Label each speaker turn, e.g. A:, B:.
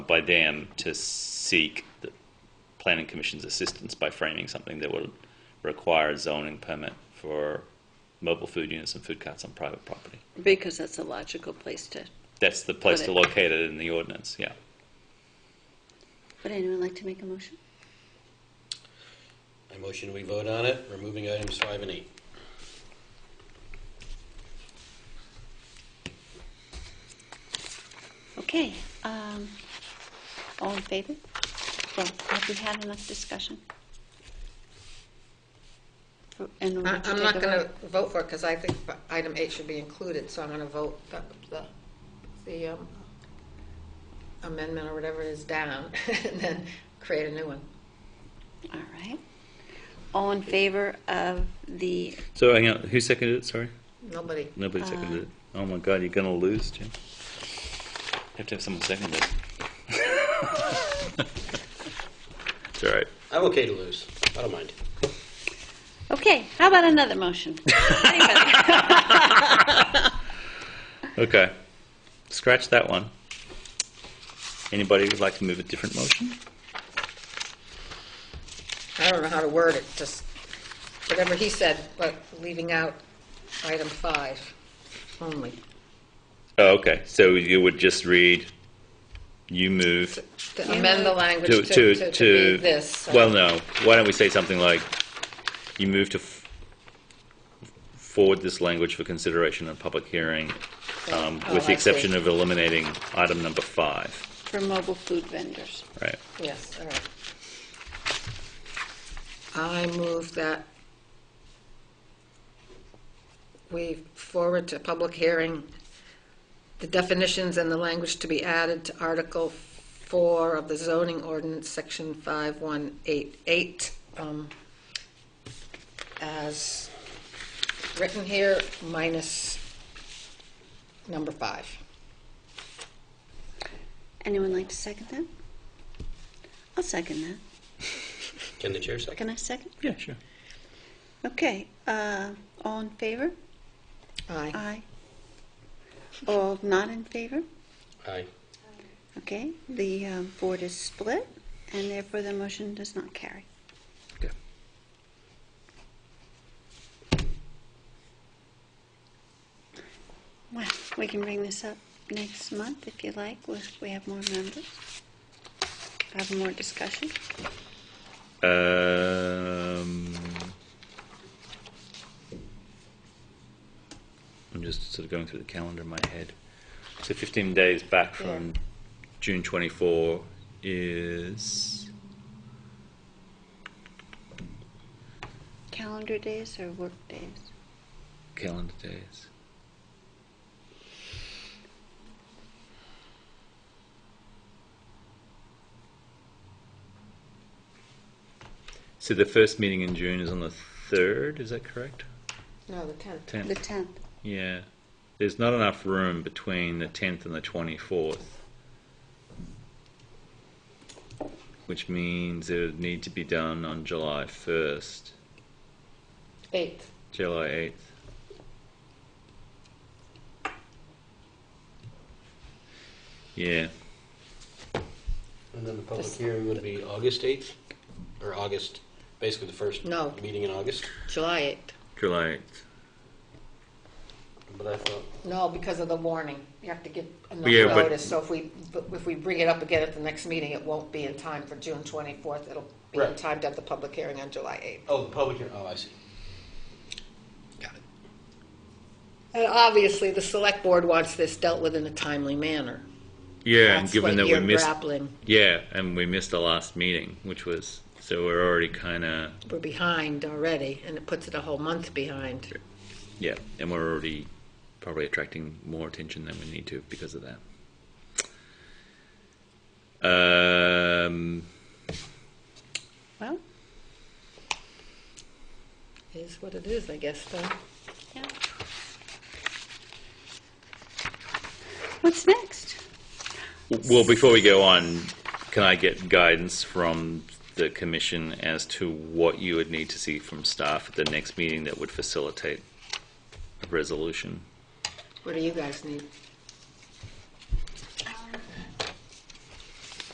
A: by them to seek the planning commission's assistance by framing something that would require a zoning permit for mobile food units and food carts on private property.
B: Because that's a logical place to,
A: That's the place
B: Got
A: to
B: it.
A: locate it in the ordinance, yeah.
B: would anyone like to make a motion?
C: I motion we vote on it, removing items five and eight.
B: Okay, um, all in favor? Well, have we had enough discussion? For- in order
D: I-
B: to
D: I'm
B: take
D: not
B: a
D: going to
B: vote?
D: vote for it because I think item eight should be included, so I'm going to vote the- the- the um, amendment or whatever it is down and then create a new one.
B: All right. All in favor of the,
A: So hang on, who seconded it, sorry?
D: Nobody,
B: Uh,
A: Nobody seconded it. Oh my God, you're gonna lose, Jim. Have to have someone second it. It's all right.
C: I'm okay to lose. I don't mind.
B: okay, how about another motion? Anybody?
A: Okay. Scratch that one. Anybody would like to move a different motion?
D: I don't know how to word it, just whatever he said, but leaving out item five only.
A: Oh, okay. So you would just read, you move
D: To amend the language
A: to,
D: to
A: to,
D: to- to
A: to,
D: be this. uh,
A: well, no. Why don't we say something like, you move to f- forward this language for consideration in public hearing, um, with
D: Oh, I
A: the
D: see.
A: exception of eliminating item number five,
B: For mobile food vendors.
A: right?
D: Yes, all right. I move that we forward to public hearing the definitions and the language to be added to Article 4 of the zoning ordinance, Section 5188, um, as written here, minus number 5.
B: Anyone like to second that? I'll second that.
C: Can the chair second?
B: Can I second?
A: Yeah, sure.
B: Okay, uh, all in favor?
D: Aye.
B: Aye. All not in favor?
C: Aye.
B: Okay, the uh, board is split, and therefore the motion does not carry.
A: Okay.
B: Well, we can bring this up next month if you like, if we have more members, have more discussion.
A: Um, I'm just sort of going through the calendar in my head. So 15 days back from June 24 is
B: Calendar days or work days?
A: calendar days. So the first meeting in June is on the 3rd, is that correct?
D: No, the 10th.
A: 10th.
B: The 10th.
A: Yeah. There's not enough room between the 10th and the 24th. Which means it would need to be done on July 1st,
D: 8th.
A: July 8th. Yeah.
C: And then the public hearing would be August 8th, or August, basically the first
D: No.
C: meeting in August.
D: July 8th.
A: July 8th.
C: But I thought,
D: No, because of the warning. You have to give enough
A: Yeah, but-
D: notice, so if we, if we bring it up again at the next meeting, it won't be in time for June 24th. It'll be in
C: Right.
D: time to have the public hearing on July
C: oh, the public hearing, oh, I see.
D: 8th. And obviously, the select board wants this dealt with in a timely manner.
A: Yeah, and
D: That's
A: given
D: what
A: that we
D: you're
A: missed.
D: grappling,
A: Yeah, and we missed the last meeting, which was. So we're already kind of.
D: we're behind already, and it puts it a whole month behind.
A: Yeah, and we're already probably attracting more attention than we need to because of that. Um,
B: Well,
D: Is what it is, I guess, though.
B: yeah. What's next?
A: well, before we go on, can I get guidance from the commission as to what you would need to see from staff at the next meeting that would facilitate a resolution?
D: What do you guys need?